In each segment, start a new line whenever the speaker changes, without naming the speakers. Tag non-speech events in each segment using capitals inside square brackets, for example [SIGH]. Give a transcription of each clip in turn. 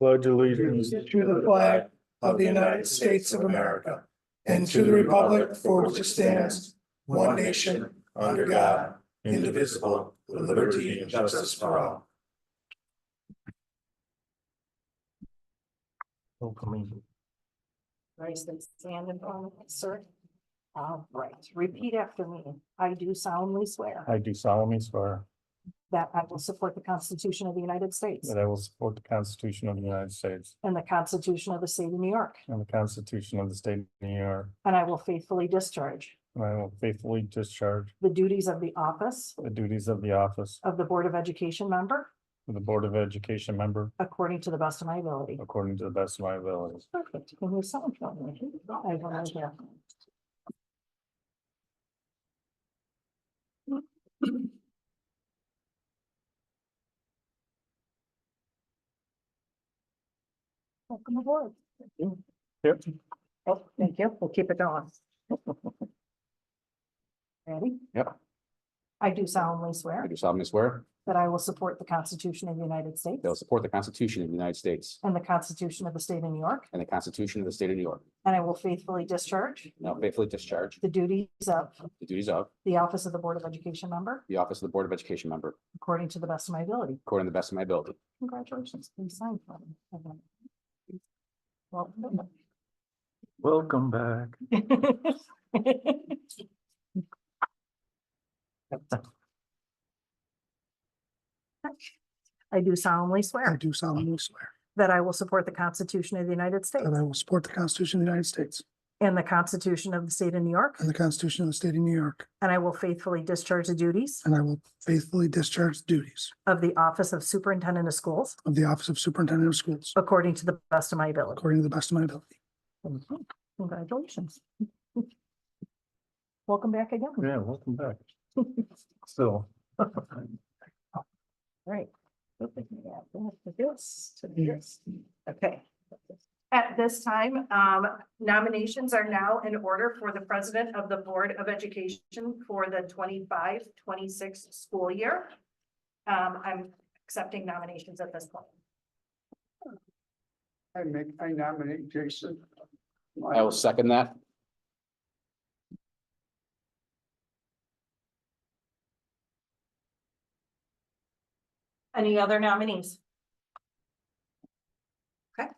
Pledge allegiance.
To the flag of the United States of America and to the republic for which it stands, one nation, under God, indivisible, with liberty and justice for all.
Raise the hand and on, sir. All right, repeat after me. I do solemnly swear
I do solemnly swear
that I will support the Constitution of the United States
that I will support the Constitution of the United States
and the Constitution of the State of New York,
and the Constitution of the State of New York,
and I will faithfully discharge
and I will faithfully discharge
the duties of the office
the duties of the office
of the Board of Education member
of the Board of Education member
according to the best of my ability.
according to the best of my abilities.
Perfect. Can you sound for me? I will not hear. Welcome aboard.
Yep.
Oh, thank you. We'll keep it going. Ready?
Yep.
I do solemnly
I
swear
do solemnly swear
that I will support the Constitution of the United States
that I will support the Constitution of the United States
and the Constitution of the State of New York,
and the Constitution of the State of New York.
and I will faithfully discharge
And I will faithfully discharge
the duties of
the duties of
the office of the Board of Education member
the Office of the Board of Education member
according to the best of my ability.
according to the best of my ability.
Congratulations. Please sign for me. Well.
Welcome back.
I do solemnly
I
swear
do solemnly swear
that I will support the Constitution of the United States
that I will support the Constitution of the United States
and the Constitution of the State of New York,
and the Constitution of the State of New York,
and I will faithfully discharge the duties
and I will faithfully discharge the duties
of the Office of Superintendent of Schools
of the Office of Superintendent of Schools
according to the best of my ability.
according to the best of my ability.
Mhm. Congratulations. Welcome back again.
Yeah, welcome back. [LAUGHS] uh, Still.
Right. Okay. At this time, um, nominations are now in order for the President of the Board of Education for the 25-26 school year. Um, I'm accepting nominations at this point.
I make, I nominate Jason.
I will second that.
Any other nominees? Okay,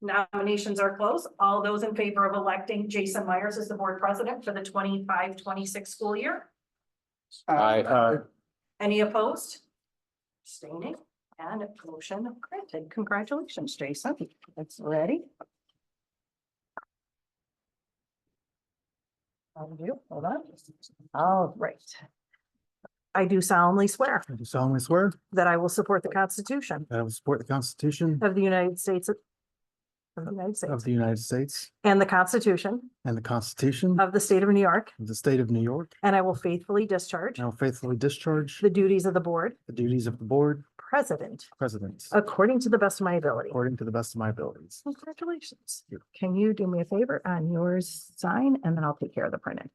nominations are closed. All those in favor of electing Jason Myers as the board president for the 25-26 school year?
I,
Uh,
Any opposed? Abstaining and motion granted. Congratulations, Jason. That's ready. Undo, hold on. All right. I do solemnly swear
I do solemnly swear
that I will support the Constitution
that I will support the Constitution
Of the United States. Of the United
of
States.
the United States
And the Constitution
and the Constitution of
of the State of New York.
the State of New York.
And I will faithfully discharge
And I will faithfully discharge
the duties of the board
the duties of the Board
president
President
according to the best of my ability.
according to the best of my abilities.
Congratulations.
Thank
Can you do me a favor on yours sign and then I'll take care of the printing?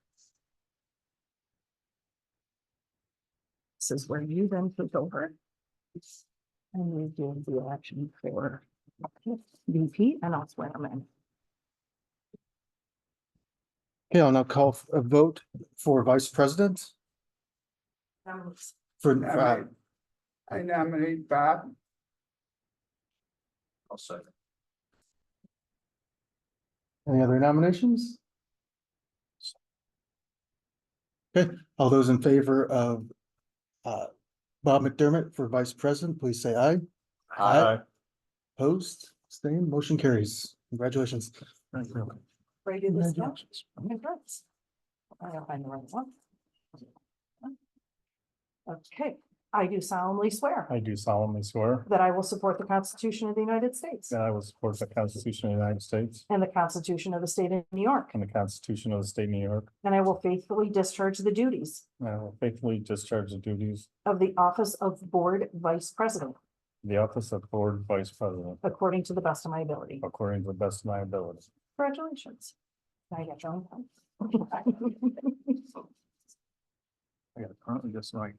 This is where you then take over. And we do the election for VP and I'll swear them in.
Okay, I'll now call f- a vote for Vice President
Um,
for, uh,
Nominate- I nominate Bob.
I'll second.
any other nominations? Okay, all those in favor of uh, Bob McDermott for Vice President, please say aye.
Aye.
Opposed, abstained, motion carries. Congratulations.
Ready to do this now? Congrats. I gotta find the right one. Okay, I do solemnly swear
I do solemnly swear
that I will support the Constitution of the United States
that I will support the Constitution of the United States
and the Constitution of the State of New York,
and the Constitution of the State of New York,
and I will faithfully discharge the duties
and I will faithfully discharge the duties
of the Office of Board Vice President
of the Office of Board Vice President
according to the best of my ability.
according to the best of my ability.
Congratulations. Now you got your own pen.
I got currently just right.